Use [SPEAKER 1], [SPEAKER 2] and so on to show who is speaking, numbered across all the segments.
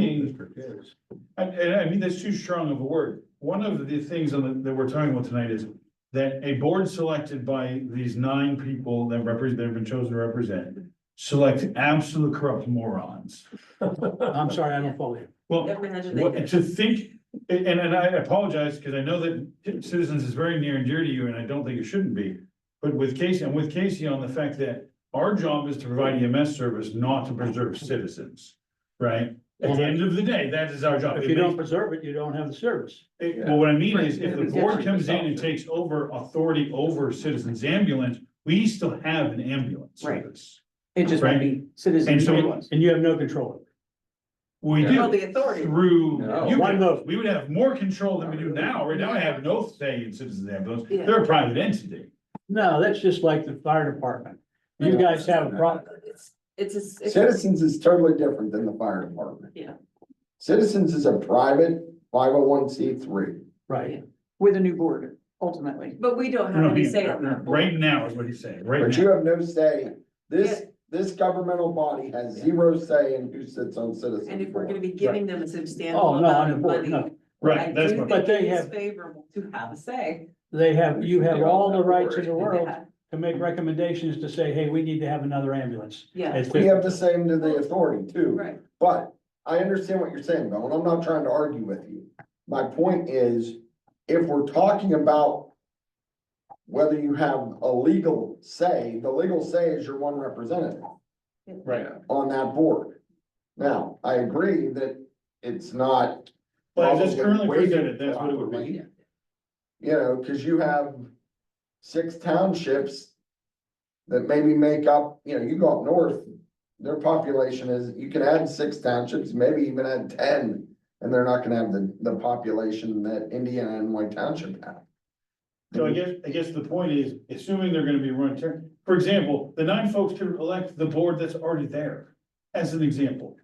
[SPEAKER 1] secret is.
[SPEAKER 2] And, and I mean, that's too strong of a word. One of the things on the- that we're talking about tonight is that a board selected by these nine people that represent, that have been chosen to represent, select absolute corrupt morons.
[SPEAKER 3] I'm sorry, I don't follow you.
[SPEAKER 2] Well,
[SPEAKER 4] Imagine they
[SPEAKER 2] What,
[SPEAKER 4] did.
[SPEAKER 2] to think, and, and I apologize, because I know that citizens is very near and dear to you, and I don't think it shouldn't be. But with Casey, I'm with Casey on the fact that our job is to provide EMS service, not to preserve
[SPEAKER 4] Mm-hmm.
[SPEAKER 2] citizens, right? At the end of the day, that is our job.
[SPEAKER 3] If you don't preserve it, you don't have the service.
[SPEAKER 2] It- Well, what I mean is, if the
[SPEAKER 4] Right.
[SPEAKER 2] board comes in and takes over authority over citizens ambulance, we still have an ambulance
[SPEAKER 4] Right.
[SPEAKER 2] service.
[SPEAKER 4] It just won't be
[SPEAKER 2] And
[SPEAKER 4] citizens.
[SPEAKER 2] so-
[SPEAKER 4] ambulance.
[SPEAKER 3] And you have no control.
[SPEAKER 2] We
[SPEAKER 5] Yeah.
[SPEAKER 4] Oh,
[SPEAKER 2] do
[SPEAKER 4] the authority.
[SPEAKER 2] through
[SPEAKER 5] No.
[SPEAKER 2] you
[SPEAKER 3] One
[SPEAKER 2] guys.
[SPEAKER 3] vote.
[SPEAKER 2] We would have more control than we do now. Right now, I have no say in citizens ambulance.
[SPEAKER 4] Yeah.
[SPEAKER 2] They're a private entity.
[SPEAKER 3] No, that's just like the fire department. You guys have a problem.
[SPEAKER 4] It's, it's, a s- it's, a-
[SPEAKER 5] Citizens is totally different than the fire department.
[SPEAKER 4] Yeah.
[SPEAKER 5] Citizens is a private five oh one C three.
[SPEAKER 3] Right.
[SPEAKER 6] with a new board ultimately.
[SPEAKER 4] but we don't
[SPEAKER 2] No, no,
[SPEAKER 4] have any
[SPEAKER 2] he-
[SPEAKER 4] say on that.
[SPEAKER 2] Right now is what he's saying, right
[SPEAKER 5] But you
[SPEAKER 2] now.
[SPEAKER 5] have no say. This, this governmental body has zero say in who sits on citizens.
[SPEAKER 4] And if we're gonna
[SPEAKER 5] board.
[SPEAKER 4] be giving them a substantial
[SPEAKER 3] Oh, no,
[SPEAKER 4] amount
[SPEAKER 3] on the
[SPEAKER 4] of
[SPEAKER 3] board,
[SPEAKER 4] money.
[SPEAKER 3] no.
[SPEAKER 4] I
[SPEAKER 2] Right, that's
[SPEAKER 4] do
[SPEAKER 2] what,
[SPEAKER 3] But
[SPEAKER 4] think
[SPEAKER 3] they
[SPEAKER 4] it is
[SPEAKER 3] have-
[SPEAKER 4] Favorable to have a say.
[SPEAKER 3] They have, you have all the rights in the
[SPEAKER 4] They
[SPEAKER 3] world
[SPEAKER 4] have-
[SPEAKER 3] to make recommendations to say, hey, we need to have another ambulance.
[SPEAKER 4] Yeah,
[SPEAKER 3] It's
[SPEAKER 5] We
[SPEAKER 3] fifty-
[SPEAKER 5] have the same to the authority too.
[SPEAKER 4] right.
[SPEAKER 5] But I understand what you're saying, Bill, and I'm not trying to argue with you. My point is, if we're talking about whether you have a legal say, the legal say is your one representative.
[SPEAKER 2] right.
[SPEAKER 5] on that board. Now, I agree that it's not,
[SPEAKER 2] But as it's currently
[SPEAKER 5] Probably
[SPEAKER 2] presented, that's what it would be.
[SPEAKER 5] you know, cause you have six townships that maybe make up, you know, you go up north, their population is, you can add six townships, maybe even add ten, and they're not gonna have the, the population that Indiana and White Township have.
[SPEAKER 2] So I guess, I guess the point is, assuming they're gonna be run, ter- for example, the nine folks could elect the board that's already there, as an example.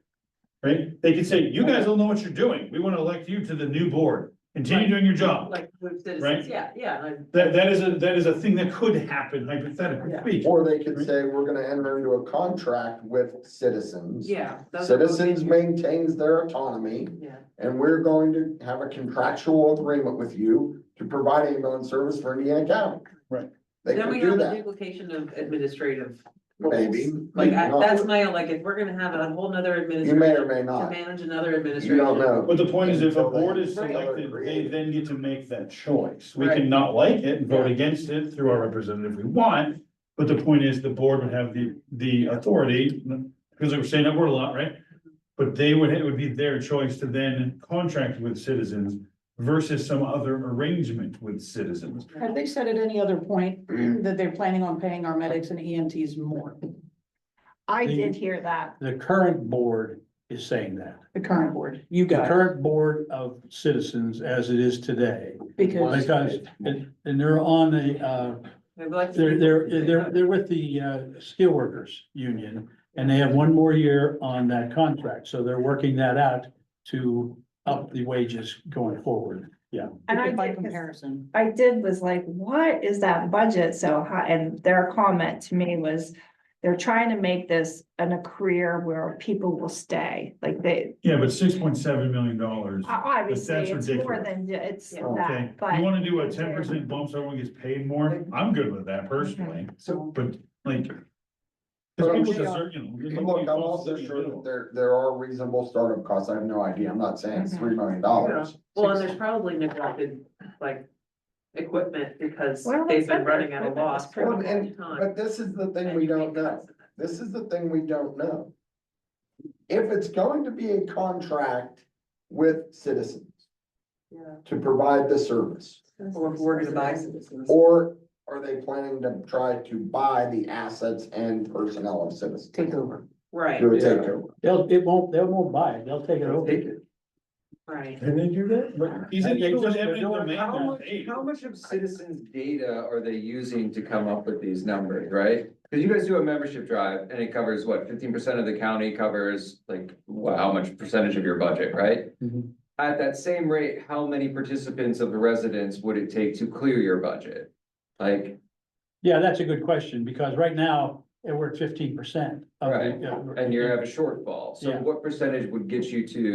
[SPEAKER 2] Right? They could say, you guys don't know what you're doing. We wanna elect you to the new board. Continue
[SPEAKER 4] Right.
[SPEAKER 2] doing your job.
[SPEAKER 4] Like with
[SPEAKER 2] Right.
[SPEAKER 4] citizens, yeah, yeah, like,
[SPEAKER 2] That, that is a, that is a thing that could happen hypothetically.
[SPEAKER 4] Yeah.
[SPEAKER 2] speaking.
[SPEAKER 5] Or they could say, we're gonna enter into a contract with citizens.
[SPEAKER 4] yeah. those are both
[SPEAKER 5] Citizens
[SPEAKER 4] in-
[SPEAKER 5] maintains their autonomy.
[SPEAKER 4] Yeah,
[SPEAKER 5] And we're going to have a contractual agreement with you to provide ambulance service for Indiana County.
[SPEAKER 2] Right.
[SPEAKER 5] They
[SPEAKER 4] then we
[SPEAKER 5] could do
[SPEAKER 4] have the
[SPEAKER 5] that,
[SPEAKER 4] duplication of administrative. roles.
[SPEAKER 5] maybe.
[SPEAKER 4] Like,
[SPEAKER 5] maybe
[SPEAKER 4] I-
[SPEAKER 5] not.
[SPEAKER 4] that's my, like, if we're gonna have a whole nother
[SPEAKER 5] You
[SPEAKER 4] administration.
[SPEAKER 5] may or may
[SPEAKER 4] To
[SPEAKER 5] not,
[SPEAKER 4] manage another
[SPEAKER 5] you
[SPEAKER 4] administration.
[SPEAKER 5] don't know.
[SPEAKER 2] But the point is, if a
[SPEAKER 5] Until they-
[SPEAKER 2] board is
[SPEAKER 4] Right.
[SPEAKER 2] selected, they then get to make that choice. We
[SPEAKER 4] Right.
[SPEAKER 2] can not like it and vote
[SPEAKER 4] Yeah.
[SPEAKER 2] against it through our representative we want. But the point is, the board would have the, the authority, because they were saying that word a lot, right? But they would, it would be their choice to then contract with citizens versus some other arrangement with citizens.
[SPEAKER 6] Have they said at any other point that they're planning on paying our medics and EMTs more,
[SPEAKER 7] I
[SPEAKER 3] The-
[SPEAKER 7] did hear that.
[SPEAKER 3] The current board is saying that.
[SPEAKER 6] the current board, you
[SPEAKER 3] The
[SPEAKER 6] guys?
[SPEAKER 3] current board of citizens as it is today,
[SPEAKER 6] Because,
[SPEAKER 3] because, and, and they're on the, uh,
[SPEAKER 4] They'd like to-
[SPEAKER 3] They're, they're, they're, they're with the, uh, steel workers union and they have one more year on that contract. So they're working that out to up the wages going forward. Yeah.
[SPEAKER 7] And I
[SPEAKER 6] by
[SPEAKER 7] did, 'cause
[SPEAKER 6] comparison,
[SPEAKER 7] I did was like, what is that budget so high? And their comment to me was, they're trying to make this an a career where people will stay, like they,
[SPEAKER 2] Yeah, but six point seven million dollars.
[SPEAKER 7] o- obviously,
[SPEAKER 2] that's
[SPEAKER 7] it's more
[SPEAKER 2] ridiculous.
[SPEAKER 7] than, ju- it's
[SPEAKER 4] Yeah.
[SPEAKER 2] Okay,
[SPEAKER 7] that, but.
[SPEAKER 2] you wanna do a ten percent bump so everyone gets paid more? I'm good with that personally,
[SPEAKER 6] so
[SPEAKER 2] but like. 'cause
[SPEAKER 5] But
[SPEAKER 2] people
[SPEAKER 5] I'm
[SPEAKER 2] deserve, you know, you
[SPEAKER 5] Look, I'm
[SPEAKER 2] you fall
[SPEAKER 5] also
[SPEAKER 2] asleep in the
[SPEAKER 5] sure
[SPEAKER 2] middle.
[SPEAKER 5] that there, there are reasonable startup costs, I have no idea, I'm not saying it's three million dollars.
[SPEAKER 4] Mm-hmm. Well, and there's probably neglected, like, equipment because
[SPEAKER 7] Well,
[SPEAKER 4] they've
[SPEAKER 7] some
[SPEAKER 4] been
[SPEAKER 7] of
[SPEAKER 4] running
[SPEAKER 7] the
[SPEAKER 4] out of
[SPEAKER 7] equipment was
[SPEAKER 4] loss for a
[SPEAKER 5] pretty
[SPEAKER 4] long
[SPEAKER 5] good.
[SPEAKER 4] time.
[SPEAKER 5] But this is the thing
[SPEAKER 4] and
[SPEAKER 5] we
[SPEAKER 4] you
[SPEAKER 5] don't
[SPEAKER 4] can't
[SPEAKER 5] know.
[SPEAKER 4] cut it.
[SPEAKER 5] This is the thing we don't know. If it's going to be a contract with citizens
[SPEAKER 4] Yeah.
[SPEAKER 5] to provide the service.
[SPEAKER 4] Or if we're gonna buy citizens.
[SPEAKER 5] Or are they planning to try to buy the assets and personnel of citizens?
[SPEAKER 6] take over.
[SPEAKER 4] Right,
[SPEAKER 5] Do a takeover.
[SPEAKER 3] They'll, it won't, they won't buy it. They'll take it over.
[SPEAKER 4] right.
[SPEAKER 1] Can they do that?
[SPEAKER 2] He's
[SPEAKER 3] They
[SPEAKER 2] illegal
[SPEAKER 3] just-
[SPEAKER 2] in eminent
[SPEAKER 3] they're doing-
[SPEAKER 2] domain
[SPEAKER 8] How
[SPEAKER 2] now.
[SPEAKER 8] much,
[SPEAKER 2] Hey,
[SPEAKER 8] how much of citizens' data are they using to come up with these numbers, right? Cause you guys do a membership drive and it covers what, fifteen percent of the county covers like, wha- how much percentage of your budget, right?
[SPEAKER 3] Mhm.
[SPEAKER 8] At that same rate, how many participants of the residents would it take to clear your budget? Like,
[SPEAKER 3] Yeah, that's a good question because right now eh, we're at fifteen percent.
[SPEAKER 8] Right. and you have a shortfall, so
[SPEAKER 3] Yeah.
[SPEAKER 8] what percentage would get you to